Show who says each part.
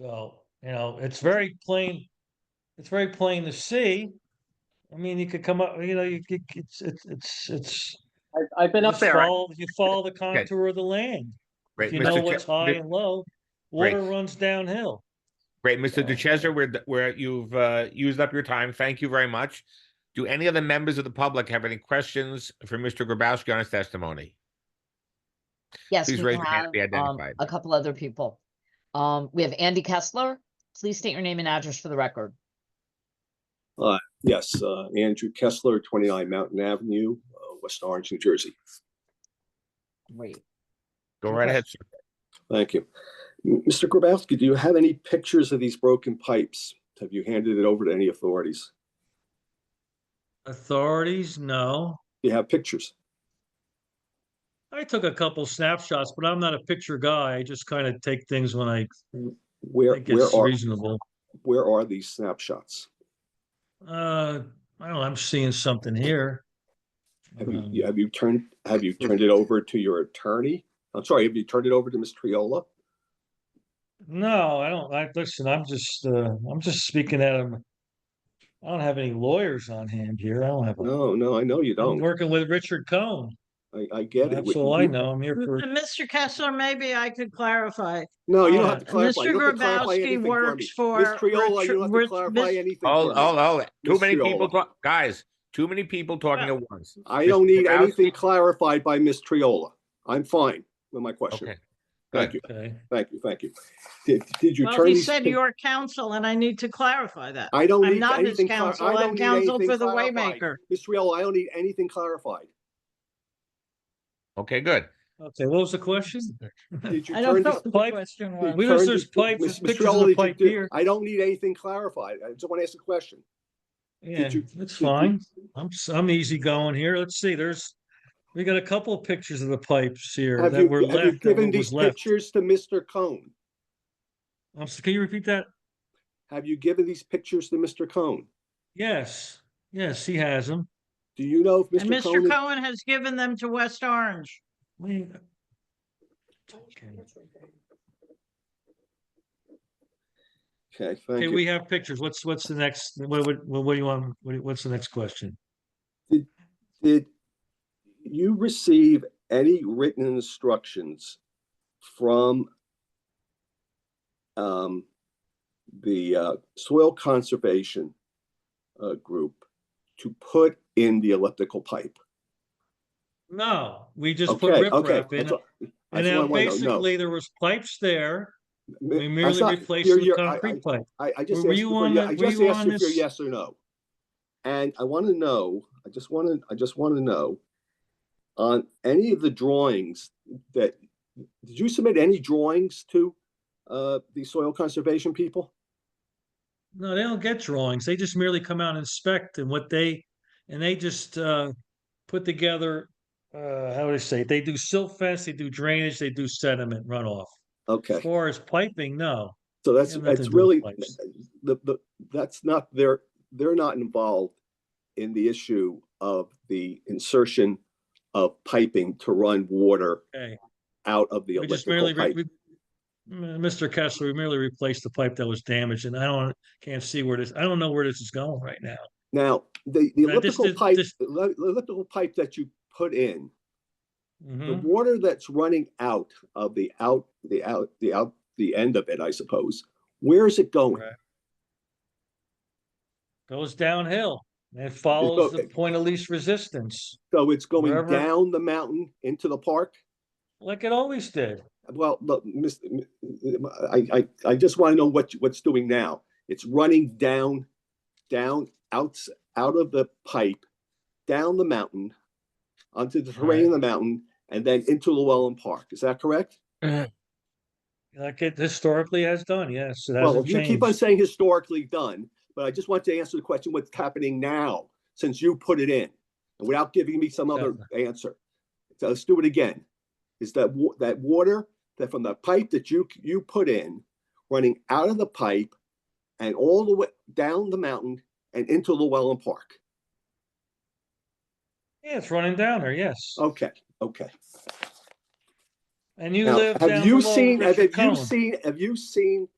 Speaker 1: So, you know, it's very plain, it's very plain to see. I mean, you could come up, you know, you, could- it's, it's, it's, it's.
Speaker 2: I've, I've been
Speaker 1: you
Speaker 2: up there. I-
Speaker 1: follow- You follow the contour of the land.
Speaker 3: Right,
Speaker 1: If you know
Speaker 3: Mr.
Speaker 1: what's
Speaker 3: Ch-
Speaker 1: high
Speaker 3: Mi-
Speaker 1: and low,
Speaker 3: Right.
Speaker 1: water runs downhill.
Speaker 3: Great, Mr.
Speaker 1: So-
Speaker 3: DeChesa, we're, d- we're, you've, uh, used up your time. Thank you very much. Do any of the members of the public have any questions for Mr. Grabowski on his testimony?
Speaker 4: Yes,
Speaker 3: Please
Speaker 4: we
Speaker 3: raise your hand
Speaker 4: have
Speaker 3: if you
Speaker 4: um,
Speaker 3: identified.
Speaker 4: a couple other people. Um, we have Andy Kessler. Please state your name and address for the record.
Speaker 5: Yes, uh, Andrew Kessler, 29 Mountain Avenue, uh, West Orange, New Jersey.
Speaker 4: Great.
Speaker 3: Go right
Speaker 4: Okay.
Speaker 3: ahead, sir.
Speaker 5: Thank you. M- Mr. Grabowski, do you have any pictures of these broken pipes? Have you handed it over to any authorities?
Speaker 1: Authorities, no.
Speaker 5: Do you have pictures?
Speaker 1: I took a couple snapshots, but I'm not a picture guy. I just kind of take things when I
Speaker 5: Where,
Speaker 1: think
Speaker 5: where
Speaker 1: it's
Speaker 5: are,
Speaker 1: reasonable.
Speaker 5: where are these snapshots?
Speaker 1: Uh, I don't know, I'm seeing something here.
Speaker 5: Have
Speaker 1: Um,
Speaker 5: you, have you turned, have you turned it over to your attorney? I'm sorry, have you turned it over to Ms. Triola?
Speaker 1: No, I don't, I, listen, I'm just, uh, I'm just speaking at him. I don't have any lawyers on hand here. I don't have, a-
Speaker 5: No, no, I know you
Speaker 1: I'm
Speaker 5: don't.
Speaker 1: working with Richard Cohen.
Speaker 5: I, I get it.
Speaker 1: That's all I
Speaker 5: You-
Speaker 1: know. I'm here for,
Speaker 6: And Mr. Kessler, maybe I could clarify.
Speaker 5: No, you don't
Speaker 1: Uh,
Speaker 5: have to clarify. You
Speaker 6: Mr.
Speaker 5: don't have to clarify
Speaker 6: Grabowski
Speaker 5: anything for me.
Speaker 6: works for
Speaker 5: Ms. Triola,
Speaker 6: Richard-
Speaker 5: you don't have to
Speaker 6: Rich-
Speaker 5: clarify
Speaker 6: Miss-
Speaker 5: anything.
Speaker 3: Hold,
Speaker 5: for me.
Speaker 3: hold, hold. Too
Speaker 5: Miss
Speaker 3: many people
Speaker 5: Fiola.
Speaker 3: talk, guys, too many people talking at once.
Speaker 5: I
Speaker 3: Mr.
Speaker 5: don't need
Speaker 3: Grabowski-
Speaker 5: anything clarified by Ms. Triola. I'm fine with my question.
Speaker 3: Okay,
Speaker 5: Thank
Speaker 3: good.
Speaker 5: you,
Speaker 1: okay.
Speaker 5: thank you, thank you. Did, did you
Speaker 6: Well,
Speaker 5: turn?
Speaker 6: he
Speaker 5: these
Speaker 6: said
Speaker 5: pic-
Speaker 6: your counsel, and I need to clarify that.
Speaker 5: I don't
Speaker 6: I'm
Speaker 5: need
Speaker 6: not his
Speaker 5: anything. clar-
Speaker 6: counsel.
Speaker 5: I don't
Speaker 6: I'm
Speaker 5: need
Speaker 6: counsel
Speaker 5: anything
Speaker 6: for the
Speaker 5: clarified.
Speaker 6: Waymaker.
Speaker 5: Ms. Triola, I don't need anything clarified.
Speaker 3: Okay, good.
Speaker 1: Okay, what was the question?
Speaker 5: Did you
Speaker 6: I
Speaker 5: turn?
Speaker 6: don't
Speaker 5: these-
Speaker 6: know what the
Speaker 1: Pipe-
Speaker 6: question
Speaker 5: did you
Speaker 6: was.
Speaker 1: We- there's-
Speaker 5: turn
Speaker 1: there's
Speaker 5: these-
Speaker 1: pipes,
Speaker 5: Ms.
Speaker 1: there's
Speaker 5: Ms.
Speaker 1: pictures of
Speaker 5: Triola,
Speaker 1: the
Speaker 5: did you
Speaker 1: pipe
Speaker 5: do-
Speaker 1: here.
Speaker 5: I don't need anything clarified. I just want to ask a question.
Speaker 1: Yeah,
Speaker 5: you-
Speaker 1: it's
Speaker 5: you-
Speaker 1: fine. I'm, s- I'm easy going here. Let's see, there's, we got a couple of pictures of the pipes here
Speaker 5: Have
Speaker 1: that
Speaker 5: you,
Speaker 1: were
Speaker 5: have you
Speaker 1: left, that
Speaker 5: given
Speaker 1: what
Speaker 5: these
Speaker 1: was left.
Speaker 5: pictures to Mr. Cohn?
Speaker 1: I'm, s- can you repeat that?
Speaker 5: Have you given these pictures to Mr. Cohn?
Speaker 1: Yes, yes, he has them.
Speaker 5: Do you know if
Speaker 6: And
Speaker 5: Mr. Cohn?
Speaker 6: Mr.
Speaker 5: is-
Speaker 6: Cohen has given them to West Orange.
Speaker 1: We-
Speaker 5: Okay, thank
Speaker 1: Okay,
Speaker 5: you.
Speaker 1: we have pictures. What's, what's the next, what, what, what do you want, what, do- what's the next question?
Speaker 5: Did you receive any written instructions from um, the uh, soil conservation uh, group to put in the elliptical pipe?
Speaker 1: No, we just put
Speaker 5: Okay, okay.
Speaker 1: riprap in.
Speaker 5: that's all-
Speaker 1: And
Speaker 5: that's all I
Speaker 1: now
Speaker 5: wanna know. No,
Speaker 1: basically there was pipes there.
Speaker 5: m-
Speaker 1: We
Speaker 5: that's
Speaker 1: merely
Speaker 5: not-
Speaker 1: replaced
Speaker 5: you're-
Speaker 1: the
Speaker 5: you're- I-
Speaker 1: concrete pipe.
Speaker 5: I, I just
Speaker 1: Were
Speaker 5: asked
Speaker 1: you
Speaker 5: you for,
Speaker 1: on
Speaker 5: ye-
Speaker 1: the-
Speaker 5: I
Speaker 1: were
Speaker 5: just
Speaker 1: you
Speaker 5: asked
Speaker 1: on
Speaker 5: you for
Speaker 1: this-
Speaker 5: yes or no. And I want to know, I just want to, I just want to know on any of the drawings that, did you submit any drawings to uh, the soil conservation people?
Speaker 1: No, they don't get drawings. They just merely come out and inspect and what they, and they just, uh, put together, uh, how would I say, it? they do silt fence, they do drainage, they do sediment runoff. As
Speaker 5: Okay,
Speaker 1: far as piping, no.
Speaker 5: so that's,
Speaker 1: have nothing to
Speaker 5: that's
Speaker 1: do with
Speaker 5: really,
Speaker 1: pipes.
Speaker 5: the, the, that's not, they're, they're not involved in the issue of the insertion of piping to run water
Speaker 1: Okay.
Speaker 5: out of the
Speaker 1: We just merely,
Speaker 5: electrical
Speaker 1: re-
Speaker 5: pipe.
Speaker 1: we- M- Mr. Kessler, we merely replaced the pipe that was damaged and I don't, can't see where this, I don't know where this is going right now.
Speaker 5: Now, the, the
Speaker 1: Now, this-
Speaker 5: elliptical
Speaker 1: this-
Speaker 5: pipe,
Speaker 1: this-
Speaker 5: the le- the elliptical pipe that you put in, the
Speaker 1: Mhm.
Speaker 5: water that's running out of the out, the out, the out, the end of it, I suppose, where is it going?
Speaker 1: Right. Goes downhill and it follows the
Speaker 5: okay.
Speaker 1: point of least resistance,
Speaker 5: So it's going
Speaker 1: Wherever-
Speaker 5: down the mountain into the park?
Speaker 1: like it always did.
Speaker 5: Well, look, Miss, I, I, I just want to know what, you- what's doing now. It's running down, down, out, out of the pipe, down the mountain, onto the terrain of the mountain, and then into Llewellyn Park. Is that correct?
Speaker 1: Like it historically has done, yes, it
Speaker 5: Well,
Speaker 1: hasn't
Speaker 5: you keep on
Speaker 1: changed.
Speaker 5: saying historically done, but I just want to answer the question, what's happening now, since you put it in? And without giving me some other answer. So let's do it again. Is that wa- that water that from the pipe that you, you put in, running out of the pipe and all the way down the mountain and into Llewellyn Park?
Speaker 1: Yeah, it's running down there, yes.
Speaker 5: Okay, okay.
Speaker 1: And you
Speaker 5: Now,
Speaker 1: live down
Speaker 5: Have you
Speaker 1: below
Speaker 5: seen, have
Speaker 1: Richard
Speaker 5: have you
Speaker 1: Cohen.
Speaker 5: seen, have you seen